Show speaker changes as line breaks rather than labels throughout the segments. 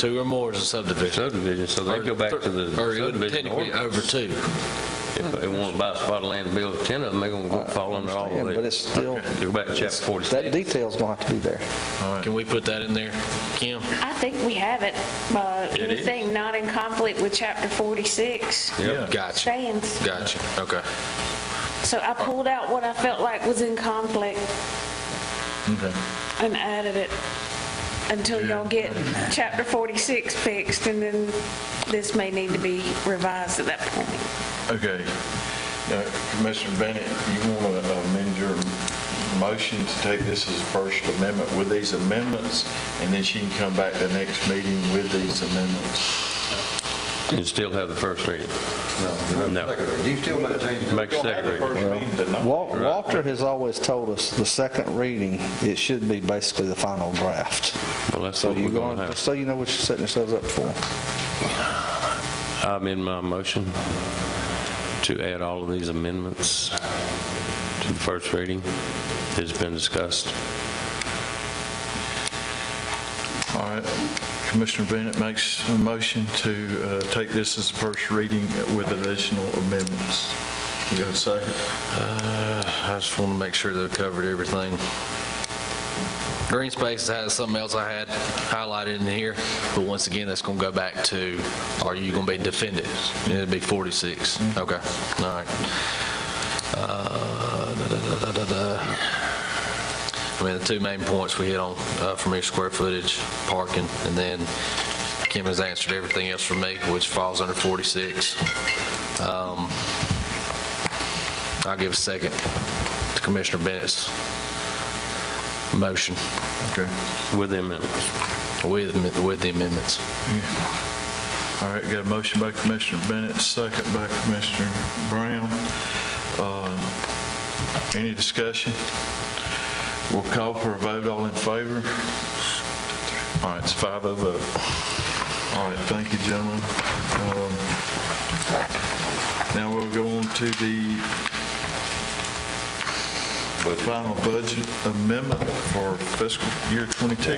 Two or more is a subdivision.
subdivision, so they go back to the
Or it would
subdivision
technically uh,
ordinance.
over two.
If they want to buy a spot of land and build 10 of them, they're going to fall under all
Yeah,
of it.
But it's still,
Go back to chapter
that
46.
detail's going to have to be there.
Can we put that in there, Kim?
I think we have it, but
It is.
anything not in conflict with chapter 46
Yep.
Gotcha,
stands.
gotcha, okay.
So I pulled out what I felt like was in conflict and added it until y'all get chapter 46 fixed, and then this may need to be revised at that point.
Okay. Now, Commissioner Bennett, you want to amend your motion to take this as a first amendment with these amendments, and then she can come back the next meeting with these amendments?
You still have the first reading. No.
You still maintain the
Make second reading.
Wal- Walter has always told us the second reading, it should be basically the final draft.
Well, that's
So
what we're
you're
going
going,
to
just
have.
so you know what you're setting yourselves up for.
I'm in my motion to add all of these amendments to the first reading that's been discussed.
All right. Commissioner Bennett makes a motion to uh, take this as a first reading with additional amendments. You got a second?
I just want to make sure they've covered everything. Green spaces has something else I had highlighted in here, but once again, that's going to go back to, are you going to be defended? It'd be 46. Okay, all right. Uh, da, da, da, da, da, da. I mean, the two main points we hit on uh, from your square footage, parking, and then Kim has answered everything else for me, which falls under 46. Um, I'll give a second to Commissioner Bennett's motion
Okay.
With the amendments.
with, with the amendments.
All right, got a motion by Commissioner Bennett, second by Commissioner Brown. Uh, Any discussion? We'll call for a vote, all in favor? All right, it's five oh vote. All right, thank you, gentlemen. Um, Now we'll go on to the final budget amendment for fiscal year 22,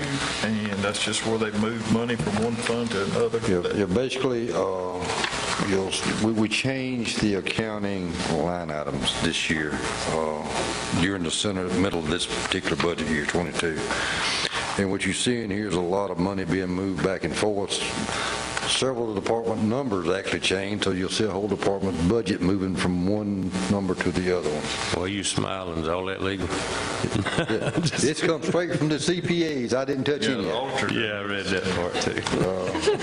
and that's just where they move money from one fund to another.
You're you're basically, uh, you'll, we- we changed the accounting line items this year uh, during the center, middle of this particular budget year, 22. And what you see in here is a lot of money being moved back and forth. Several department numbers actually changed, so you'll see a whole department budget moving from one number to the other one.
Why you smiling? Is all that legal?
This comes straight from the CPAs. I didn't touch any of it.
Yeah, I read that part too.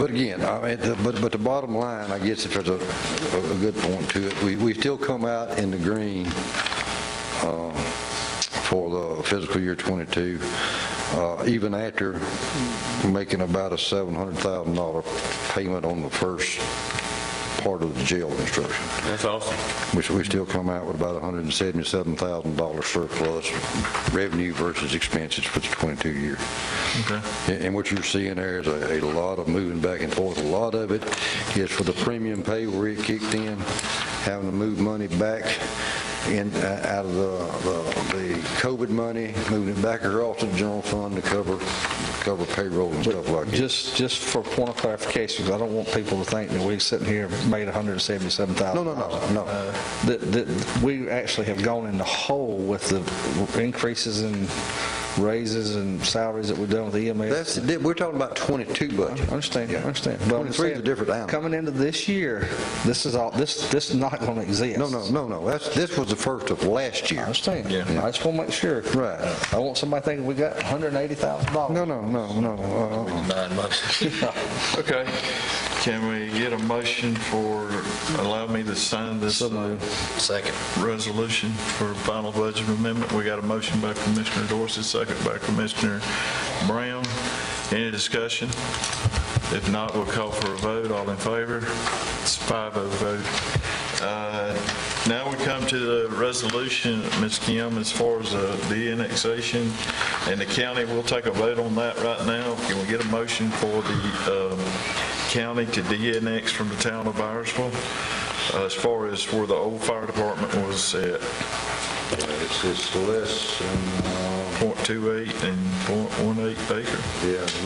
But again, I mean, the- but, but the bottom line, I guess if there's a, a good point to it, we, we still come out in the green uh, for the fiscal year '22, uh, even after making about a $700,000 payment on the first part of the jail construction,
That's awesome.
which we still come out with about $177,000 surplus revenue versus expenses for the '22 year.
Okay.
And and what you're seeing there is a a lot of moving back and forth. A lot of it is for the premium pay where it kicked in, having to move money back in, uh, out of the- the the COVID money, moving it back across to the general fund to cover, cover payroll and stuff like that.
Just, just for point of clarification, 'cause I don't want people to think that we sitting here made $177,000.
No, no, no, no.
That, that we actually have gone in the hole with the increases in raises and salaries that we've done with E EMS.
That's, we're talking about 22 budget.
I understand, I understand. But I'm
23 is a
saying,
different animal.
Coming into this year, this is all, this, this is not going to exist.
No, no, no, no. That's, this was the first of last
I
year.
understand.
Yeah.
I just want to make sure.
Right.
I want somebody thinking we got $180,000.
No, no, no, no. uh-uh.
Nine months.
Okay. Can we get a motion for, allow me to sign this uh,
Second.
resolution for final budget amendment? We got a motion by Commissioner Dorsey, second by Commissioner Brown. Any discussion? If not, we'll call for a vote. All in favor? It's five oh vote. Uh, Now we come to the resolution, Ms. Kim, as far as uh, the annexation and the county. We'll take a vote on that right now. Can we get a motion for the um, county to de-annex from the town of Irisville uh, as far as where the old fire department was at,
It's, it's less than, uh,
.28 and .18 acre?
yeah,